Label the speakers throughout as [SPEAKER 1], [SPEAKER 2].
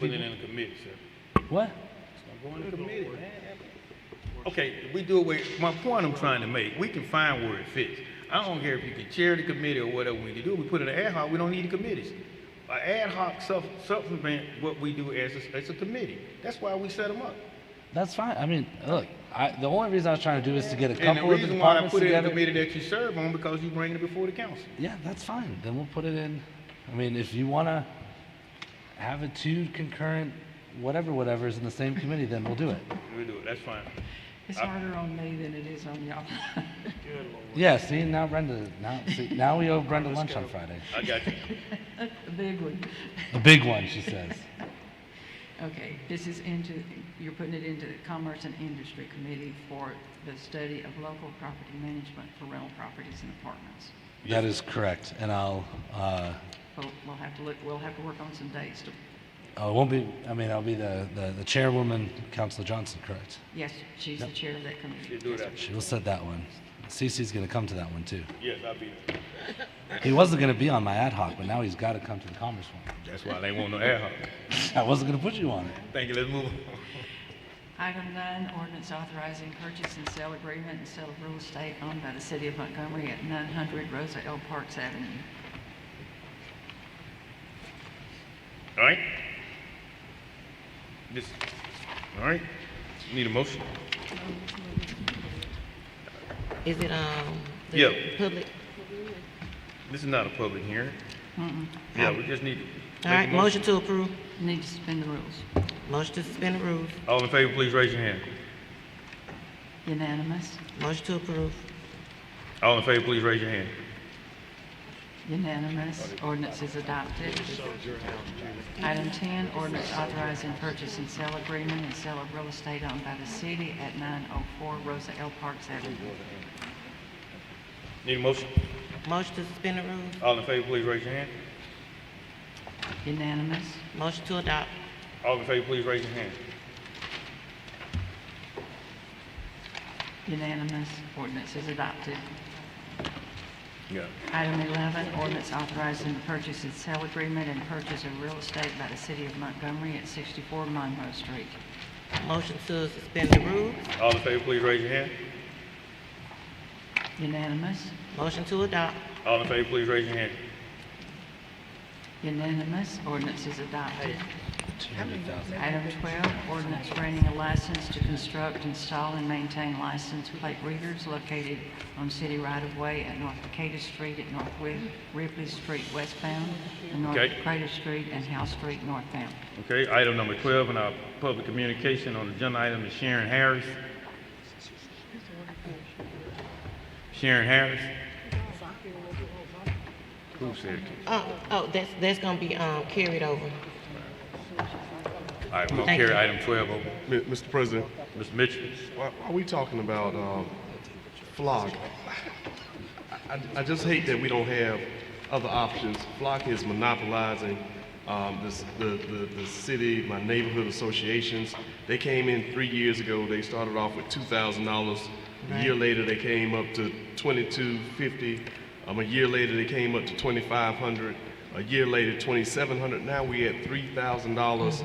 [SPEAKER 1] Put it in a committee, sir.
[SPEAKER 2] What?
[SPEAKER 1] I'm going to committee, man. Okay, we do away, my point I'm trying to make, we can find where it fits. I don't care if you can chair the committee or whatever we can do, we put it in ad hoc, we don't need the committees. An ad hoc sup- supplement what we do as a, as a committee. That's why we set them up.
[SPEAKER 2] That's fine. I mean, look, I, the only reason I was trying to do is to get a
[SPEAKER 1] And the
[SPEAKER 2] couple of the
[SPEAKER 1] reason why I
[SPEAKER 2] departments
[SPEAKER 1] put it in the
[SPEAKER 2] together.
[SPEAKER 1] committee that you serve on, because you bring it before the council.
[SPEAKER 2] Yeah, that's fine. Then we'll put it in. I mean, if you want to have it two concurrent, whatever, whatever is in the same committee, then we'll do it.
[SPEAKER 1] We do it, that's fine.
[SPEAKER 3] It's harder on me than it is on y'all.
[SPEAKER 2] Yeah, see, now Brenda, now, see, now we owe Brenda lunch on Friday.
[SPEAKER 1] I got you.
[SPEAKER 3] The big one.
[SPEAKER 2] The big one, she says.
[SPEAKER 3] Okay, this is into, you're putting it into the Commerce and Industry Committee for the study of local property management for rental properties and apartments.
[SPEAKER 2] That is correct. And I'll, uh,
[SPEAKER 3] We'll, we'll have to look, we'll have to work on some dates to,
[SPEAKER 2] I oh, won't be, I mean, I'll be the, the, the chairwoman, Councilor Johnson, correct?
[SPEAKER 3] yes, she's the chair of that committee.
[SPEAKER 1] You do it after.
[SPEAKER 2] She will set that one. Cece's going to come to that one too.
[SPEAKER 1] Yes, I'll be there.
[SPEAKER 2] He wasn't going to be on my ad hoc, but now he's got to come to the commerce one.
[SPEAKER 1] That's why they want no ad hoc.
[SPEAKER 2] I wasn't going to put you on it.
[SPEAKER 1] Thank you, let's move on.
[SPEAKER 3] Item nine, ordinance authorizing purchase and sale agreement and sale of real estate owned by the city of Montgomery at nine hundred Rosa L. Parks Avenue.
[SPEAKER 1] All right? This, all right? Need a motion?
[SPEAKER 4] Is it, um, the
[SPEAKER 1] Yeah.
[SPEAKER 4] public?
[SPEAKER 1] This is not a public hearing. Yeah, we just need to. make a
[SPEAKER 4] All right, motion to approve.
[SPEAKER 3] Need to suspend the rules.
[SPEAKER 4] Motion to suspend the rules.
[SPEAKER 1] All in favor, please raise your hand.
[SPEAKER 3] Unanimous?
[SPEAKER 4] Motion to approve.
[SPEAKER 1] All in favor, please raise your hand.
[SPEAKER 3] Unanimous. Ordinance is adopted. Item 10, ordinance authorizing purchase and sale agreement and sale of real estate owned by the city at 904 Rosa L. Parks Avenue.
[SPEAKER 1] Need a motion?
[SPEAKER 4] Motion to suspend the rules.
[SPEAKER 1] All in favor, please raise your hand.
[SPEAKER 3] Unanimous.
[SPEAKER 4] Motion to adopt.
[SPEAKER 1] All in favor, please raise your hand.
[SPEAKER 3] Unanimous. Ordinance is adopted.
[SPEAKER 1] Yeah.
[SPEAKER 3] Item 11, ordinance authorizing the purchase and sale agreement and purchase of real estate by the city of Montgomery at 64 Monroe Street.
[SPEAKER 4] Motion to suspend the rules.
[SPEAKER 1] All in favor, please raise your hand.
[SPEAKER 3] Unanimous.
[SPEAKER 4] Motion to adopt.
[SPEAKER 1] All in favor, please raise your hand.
[SPEAKER 3] Unanimous. Ordinance is adopted.
[SPEAKER 2] 200,000.
[SPEAKER 3] Item 12, ordinance granting a license to construct, install, and maintain license plate readers located on city right-of-way at North Decatur Street, at North Ri- Ripley Street westbound, and North
[SPEAKER 1] Okay.
[SPEAKER 3] Decatur Street and House Street northbound.
[SPEAKER 1] Okay, item number 12 in our public communication on the agenda item is Sharon Harris. Sharon Harris? Who said it?
[SPEAKER 4] Oh, oh, that's, that's gonna be, um, carried over.
[SPEAKER 1] All right, we're gonna
[SPEAKER 4] Thank you.
[SPEAKER 1] carry item 12 over.
[SPEAKER 5] Mi- Mr. President,
[SPEAKER 1] Mr. Mitchell?
[SPEAKER 5] why why are we talking about um, flock? I- I- I just hate that we don't have other options. Flock is monopolizing um, this- the the the city, my neighborhood associations. They came in three years ago, they started off with $2,000. A year later, they came up to $2,250. Um, A year later, they came up to $2,500. A year later, $2,700. Now we at $3,000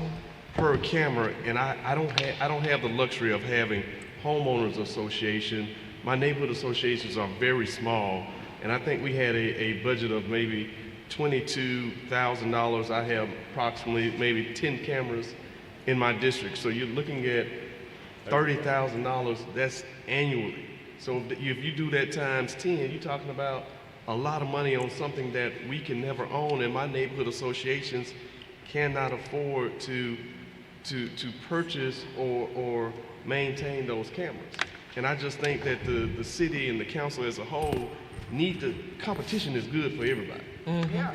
[SPEAKER 5] per camera, and I, I don't have I don't have the luxury of having homeowners association. My neighborhood associations are very small, and I think we had a, a budget of maybe twenty-two thousand dollars. I have approximately maybe ten cameras in my district, so you're looking at thirty thousand dollars. That's annually. So if you- if you do that times ten, you're talking about a lot of money on something that we can never own, and my neighborhood associations cannot afford to, to, to purchase or, or maintain those cameras. And I just think that the, the city and the council as a whole need to, competition is good for everybody.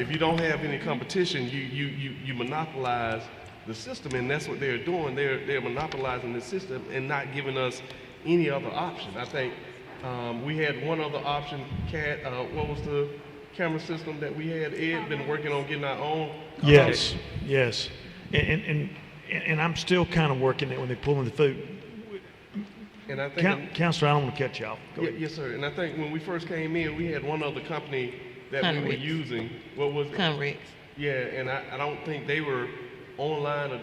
[SPEAKER 5] If you don't have any competition, you, you, you, you monopolize the system, and that's what they're doing. They're, they're monopolizing the system and not giving us any other option. I think um, we had one other option, Cat, uh, what was the camera system that we had? Ed been working on getting our own.
[SPEAKER 6] Yes, yes. And, and, and- and, and I'm still kind of working it when they pull in the food.
[SPEAKER 5] And I think,
[SPEAKER 6] Coun- Counselor, I don't want to cut you off. Go
[SPEAKER 5] Yeah,
[SPEAKER 6] ahead.
[SPEAKER 5] yes, sir. And I think when we first came in, we had one other company that we were
[SPEAKER 4] Connex.
[SPEAKER 5] using. What was it?
[SPEAKER 4] Conrex.
[SPEAKER 5] Yeah, and I, I don't think they were online or